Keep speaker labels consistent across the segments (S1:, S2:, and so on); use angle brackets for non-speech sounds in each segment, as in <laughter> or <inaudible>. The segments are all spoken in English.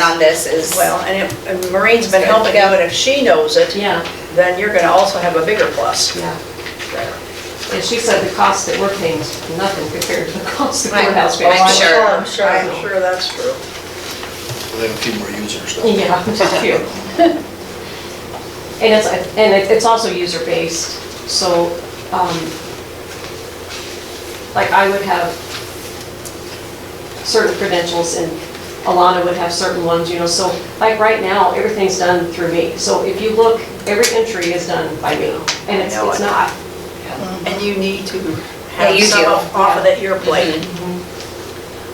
S1: on this is,
S2: Well, and if- and Maureen's been helping out, if she knows it,
S3: Yeah,
S2: then you're gonna also have a bigger plus.
S3: yeah. And she said the cost that we're paying is nothing compared to the cost the
S1: Right.
S3: courthouse
S1: I'm
S3: pays.
S1: sure.
S2: I'm sure, I'm sure that's true.
S4: They have a few more users.
S1: <laughs>
S4: though.
S3: Yeah, just a few. And it's, and it- it's also user-based, so, um, like I would have certain credentials and Alana would have certain ones, you know, so like right now, everything's done through me. So if you look, every entry is done by me and it's,
S2: know
S3: it's
S2: it.
S3: not.
S2: And you need to
S1: Yeah,
S2: have
S1: you
S2: some
S1: do.
S2: off off of that your plate.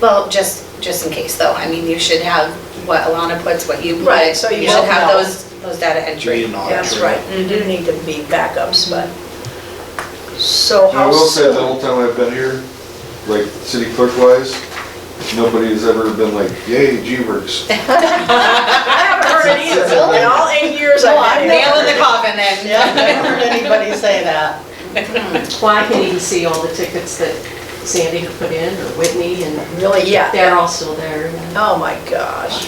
S1: well, just, just in case though, I mean, you should have what Alana puts, what you put.
S2: Right, so you
S1: should
S2: both
S1: have
S2: know.
S1: those, those data
S4: Do you
S1: entry.
S4: need an audit?
S2: That's right, you do need to be backups, but, so
S5: I
S2: how
S5: will say, the
S2: soon?
S5: whole time I've been here, like, city clerk wise, nobody has ever been like, yay, G-Works.
S2: I haven't heard any of
S5: Really?
S2: it, in all eight years
S6: No,
S2: I've
S6: I've
S2: been
S1: Nail
S2: here.
S1: in the coffin then.
S6: Yeah, I've never heard anybody say that.
S3: Well, I can even see all the tickets that Sandy had put in or Whitney and
S2: Really,
S3: they're
S2: yeah.
S3: all still there.
S2: Oh my gosh,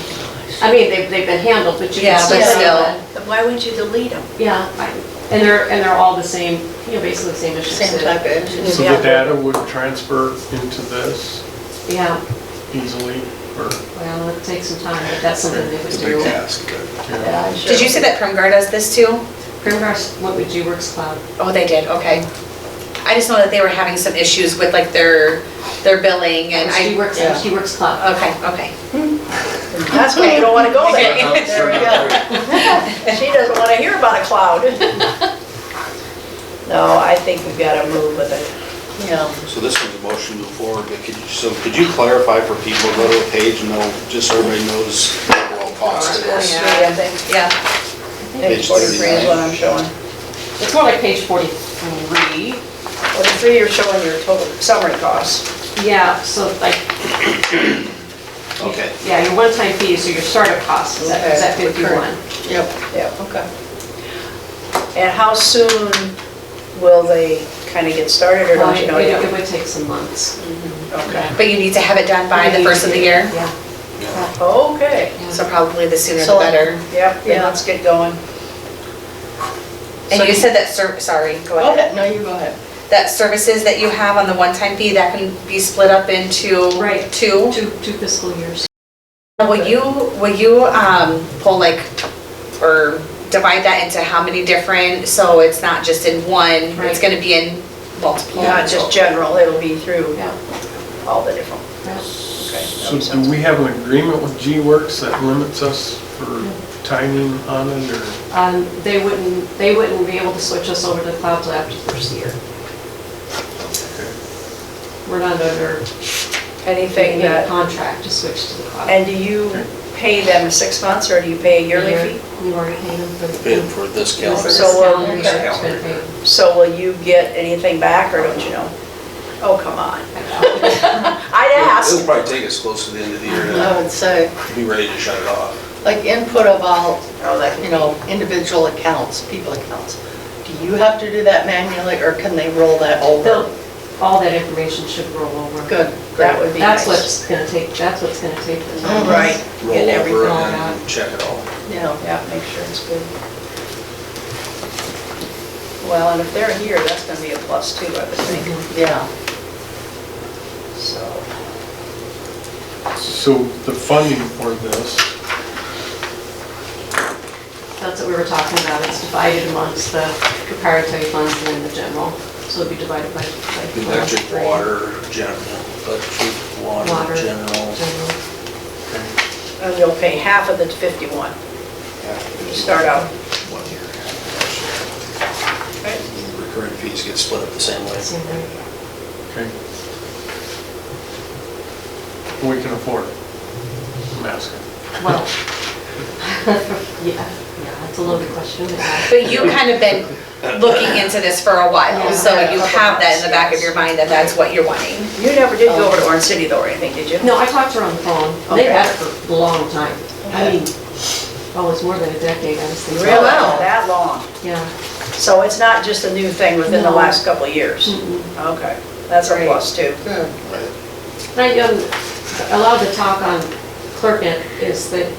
S3: I mean, they've, they've been handled, but you
S1: Yeah,
S3: can still
S6: but
S3: see
S1: still.
S3: that.
S2: Then why wouldn't you delete them?
S3: Yeah, I- and they're, and they're all the same, you know, basically the same issues.
S1: Same
S3: that-
S1: type of,
S7: So the data would transfer into this
S3: Yeah,
S7: easily, or?
S3: well, it takes some time, but that's something they would
S4: It's a big
S3: do.
S4: task, but
S3: Yeah, sure.
S1: did you say that Primgar does this too?
S3: Primgar's went with GWorks Cloud.
S1: Oh, they did, okay. I just know that they were having some issues with like their, their billing and I, Uh,
S3: GWorks,
S6: yeah.
S3: GWorks Cloud.
S1: okay, okay.
S2: That's why you don't wanna go there.
S1: Okay.
S2: There we go. <laughs> She doesn't wanna hear about a <laughs> cloud. No, I think we've gotta move with it.
S6: Yeah.
S4: So this is a motion to move forward, but could you, so could you clarify for people, go to a page and they'll, just so everybody knows the overall cost of
S2: Page
S4: this?
S1: yeah.
S2: three, I think.
S1: Yeah,
S2: Page
S4: Page
S2: forty-three is what I'm showing.
S3: It's more like page 43.
S2: Forty-three, you're showing your total summary costs.
S3: Yeah, so like,
S4: Okay.
S3: Oh, yeah, your one-time fee, so your startup cost is at, is at
S2: Okay, recurring.
S3: 51.
S6: Yep.
S2: Yeah, okay. And how soon will they kinda get started, or
S3: Well,
S2: don't you
S3: It
S2: know
S3: it- it
S2: yet?
S3: would take some months.
S2: Okay.
S1: but you need to have it done by the first of the year,
S3: Yeah.
S2: Okay,
S1: so probably the sooner the
S6: So-
S1: better.
S2: yep, then
S6: Yeah.
S2: let's get going.
S1: And
S6: So
S1: you
S6: you-
S1: said that, ser- sorry, go
S6: Go
S1: ahead.
S6: ahead, no, you go ahead.
S1: That services that you have on the one-time fee, that can be split up into
S3: Right.
S1: two?
S3: Two, two fiscal years.
S1: Will you, will you um, pull like, or divide that into how many different, so it's not just in one, it's
S3: Right.
S1: gonna be in multiple?
S2: Not just general, it'll be through
S3: Yeah.
S2: all the different,
S3: yeah.
S2: okay.
S7: So do we have an agreement with G-Works that limits us for timing on it, or?
S3: Um, They wouldn't, they wouldn't be able to switch us over to the cloud till after the first year. We're not under
S2: Anything
S3: any
S2: that,
S3: contract to switch to the cloud.
S2: and do you pay them six months, or do you pay a yearly fee?
S3: We already paid them for the.
S4: Bid for this
S3: for
S4: calendar.
S3: this
S2: So, um,
S3: calendar year, it's been paid.
S2: So will you get anything back, or don't you know? Oh, come on. I'd
S4: It'll
S2: ask.
S4: probably take us close to the end of the year
S6: I
S4: to
S6: would say,
S4: be ready to shut it off.
S6: uh, like input of all,
S2: Oh, that-
S6: you know, individual accounts, people accounts. Do you have to do that manually or can they roll that over?
S3: <laughs> They'll- All that information should roll over.
S6: Good,
S2: That would be
S3: That's
S2: nice.
S3: what's gonna take, that's what's gonna take the time.
S2: Right,
S4: Roll
S3: Get
S4: over
S3: everything all
S4: and
S3: out.
S4: then check it all.
S6: yeah.
S2: yeah, make sure it's good. Well, and if they're here, that's gonna be a plus too, I would think,
S3: Mm-hmm.
S6: Yeah.
S2: so.
S7: So the funding for this,
S3: That's what we were talking about, it's divided amongst the preparatory funds and then the general. So it'd be divided by. by-
S4: Electric,
S3: by-
S4: water, general, electric,
S3: Water.
S4: water, general.
S3: General.
S2: And you'll pay half of the 51, you start out.
S4: One year. Recurring fees get split up the same way.
S3: Same way.
S7: okay. We can afford it, I'm asking.
S3: Well, <laughs> yeah, yeah, it's a loaded question.
S1: But you kind of been looking into this for a while,
S3: Yeah.
S1: so you have that in the back of your mind that that's what you're wanting.
S2: You never did go over to Orange City though, or anything, did you?
S3: No, I talked to her on the phone. They've
S2: Okay.
S3: had it for a long time. I mean, oh, it's more than a decade, I was thinking.
S2: Really? That long?
S3: Yeah,
S2: So it's not just a new thing within the
S3: No.
S2: last couple of years?
S3: Mm-mm.
S2: Okay, that's a
S3: Right.
S2: plus too.
S6: Good.
S4: Right.
S3: and I, um, a lot of the talk on Clerknet is that